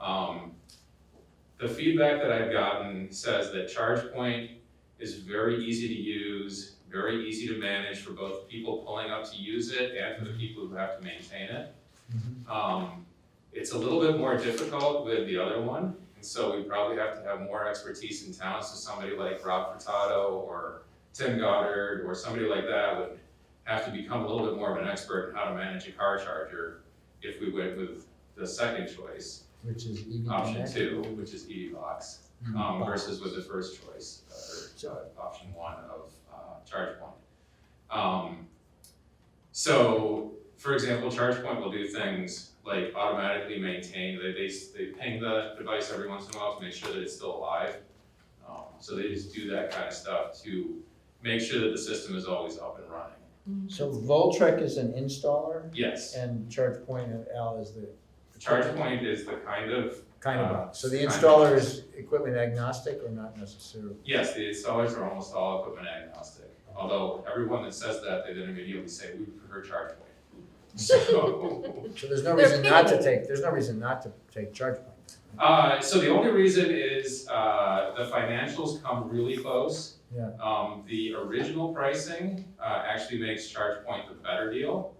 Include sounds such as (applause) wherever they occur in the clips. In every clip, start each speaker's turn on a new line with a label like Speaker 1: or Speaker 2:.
Speaker 1: Um, the feedback that I've gotten says that ChargePoint is very easy to use, very easy to manage for both people pulling up to use it and for the people who have to maintain it.
Speaker 2: Mm-hmm.
Speaker 1: Um, it's a little bit more difficult with the other one, and so we probably have to have more expertise in town, so somebody like Rob Furtado or Tim Goddard or somebody like that would have to become a little bit more of an expert in how to manage a car charger if we went with the second choice,
Speaker 2: Which is EV
Speaker 1: option
Speaker 2: Connect.
Speaker 1: two, which is EV box,
Speaker 2: Mm-hmm.
Speaker 1: um, versus with the first choice, or
Speaker 2: So,
Speaker 1: uh, option one of uh, ChargePoint. Um, so, for example, ChargePoint will do things like automatically maintain, they, they, they ping the device every once in a while to make sure that it's still alive. Um, so they just do that kind of stuff to make sure that the system is always up and running.
Speaker 2: so Voltrek is an installer
Speaker 1: Yes,
Speaker 2: and ChargePoint and Al is the.
Speaker 1: ChargePoint is the kind of,
Speaker 2: Kind of
Speaker 1: uh,
Speaker 2: box. So the
Speaker 1: kind of
Speaker 2: installer
Speaker 1: box.
Speaker 2: is equipment agnostic or not necessarily?
Speaker 1: yes, the installers are almost all equipment agnostic. Although everyone that says that, they then immediately say, we prefer ChargePoint. (laughs) So,
Speaker 2: So there's no
Speaker 3: They're
Speaker 2: reason not to take, there's no reason not to take ChargePoint.
Speaker 1: Uh, so the only reason is, uh, the financials come really close.
Speaker 2: Yeah.
Speaker 1: Um, the original pricing, uh, actually makes ChargePoint the better deal.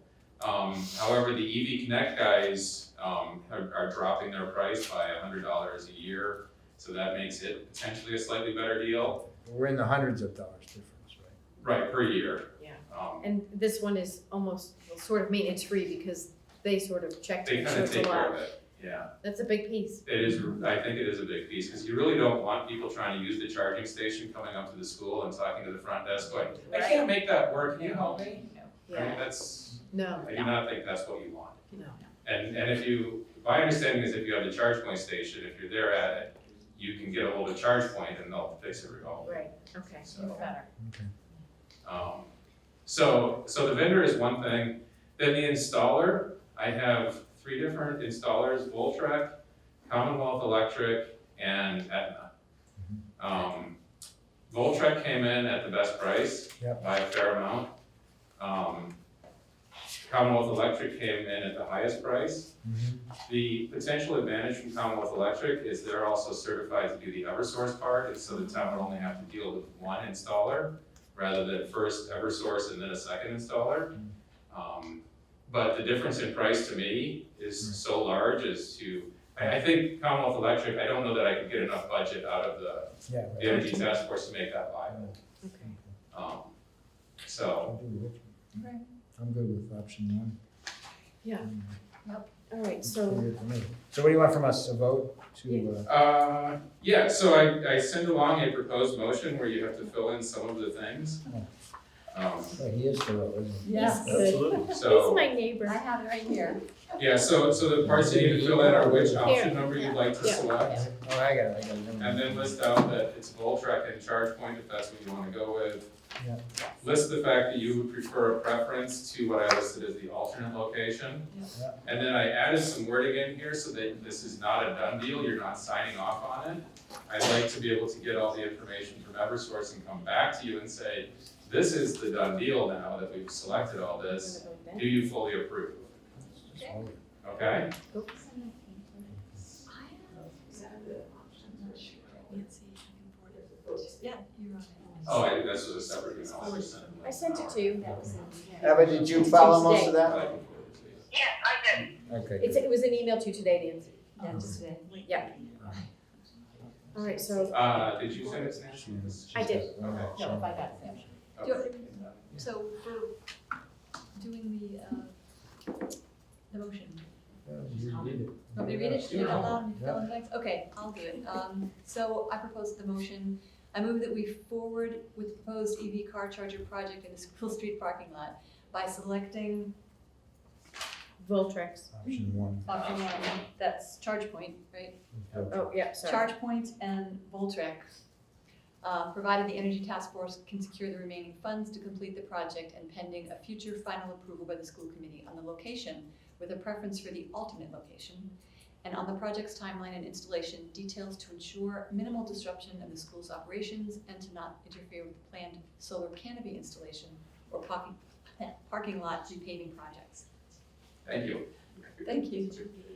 Speaker 1: Um, however, the EV Connect guys, um, are, are dropping their price by a hundred dollars a year. So that makes it potentially a slightly better deal,
Speaker 2: We're in the hundreds of dollars difference, right?
Speaker 1: right, per year.
Speaker 3: Yeah.
Speaker 1: Um,
Speaker 3: (laughs) And this one is almost well, sort of maintenance free because they sort of check
Speaker 1: they
Speaker 3: it,
Speaker 1: kinda
Speaker 3: so it's
Speaker 1: take care of
Speaker 3: alive.
Speaker 1: it, yeah.
Speaker 3: That's a big piece.
Speaker 1: It is, I think it is a big piece, cause you really don't want people trying to use the charging station coming up to the school and talking to the front desk going, I can't make that work, can you help me? I mean,
Speaker 3: Yeah,
Speaker 1: that's,
Speaker 3: no,
Speaker 1: I do not think that's what you want.
Speaker 3: no.
Speaker 1: And, and if you, my understanding is if you have the charge point station, if you're there at it, you can get a hold of charge point and they'll fix it all.
Speaker 3: Right, okay.
Speaker 1: So-
Speaker 3: Better.
Speaker 1: Um, so, so the vendor is one thing, then the installer, I have three different installers, Voltrek, Commonwealth Electric, and Aetna. Um, Voltrek came in at the best price
Speaker 2: Yep.
Speaker 1: by a fair amount. Um, Commonwealth Electric came in at the highest price. The potential advantage from Commonwealth Electric is they're also certified to do the Eversource part, and so the town would only have to deal with one installer rather than first Eversource and then a second installer. Um, but the difference in price to me is so large as to, I, I think Commonwealth Electric, I don't know that I could get enough budget out of the,
Speaker 2: Yeah. right.
Speaker 1: the energy task force to make that viable.
Speaker 3: Okay.
Speaker 1: Um, so,
Speaker 2: I'll do Voltrek.
Speaker 4: Right.
Speaker 2: I'm good with option one.
Speaker 3: Yeah. All right,
Speaker 2: It's
Speaker 3: so
Speaker 2: pretty good for me. So what do you want from us, a vote to, uh,
Speaker 1: uh, yeah, so I, I send along a proposed motion where you have to fill in some of the things. Um,
Speaker 2: oh, he is thorough, isn't he?
Speaker 4: Yes,
Speaker 3: Absolutely. he's
Speaker 1: so,
Speaker 3: my
Speaker 4: I
Speaker 3: neighbor.
Speaker 4: have it right here.
Speaker 1: yeah, so, so the parts you need to fill in are which option number you'd like to
Speaker 3: Yeah.
Speaker 1: select.
Speaker 2: Oh, I got it, I got it. never
Speaker 1: And then
Speaker 2: mind.
Speaker 1: list out that it's Voltrek and ChargePoint if that's what you wanna go with.
Speaker 2: Yeah.
Speaker 1: List the fact that you would prefer a preference to what I listed as the alternate location.
Speaker 2: Yeah.
Speaker 1: And then I added some wording in here so that this is not a done deal, you're not signing off on it. I'd like to be able to get all the information from Eversource and come back to you and say, this is the done deal now that we've selected all this. Do you fully approve?
Speaker 2: That's all.
Speaker 1: Okay?
Speaker 3: Oops.
Speaker 1: Oh, I, this was a separate email. I just sent
Speaker 3: I sent it to you.
Speaker 2: Eva, did you follow most of
Speaker 1: But
Speaker 2: that?
Speaker 1: I can forward it to you.
Speaker 2: Okay.
Speaker 3: It's, it was an email to you today, Nancy.
Speaker 4: Yeah,
Speaker 1: Uh-huh.
Speaker 4: just today.
Speaker 3: All right, so,
Speaker 1: Uh, did you send it to
Speaker 2: She is-
Speaker 3: I
Speaker 2: she's
Speaker 3: did.
Speaker 2: got-
Speaker 1: Okay.
Speaker 2: oh, sorry.
Speaker 4: got it.
Speaker 1: Okay.
Speaker 5: So for doing the, uh, the motion,
Speaker 2: Yeah, You read it.
Speaker 5: want me to read it,
Speaker 1: Yeah.
Speaker 5: read it out loud and fill in the blanks? Okay, I'll do it. Um, so I propose the motion. I move that we forward with the proposed EV car charger project in the school street parking lot by selecting
Speaker 3: Voltrex.
Speaker 2: Option one.
Speaker 5: option one, that's charge point, right?
Speaker 3: Oh, yeah, sorry.
Speaker 5: Charge points and Voltrek, uh, provided the Energy Task Force can secure the remaining funds to complete the project and pending a future final approval by the school committee on the location with a preference for the alternate location, and on the project's timeline and installation details to ensure minimal disruption of the school's operations and to not interfere with the planned solar canopy installation or parking, (laughs) parking lot repaving projects.
Speaker 1: Thank you.
Speaker 5: Thank you.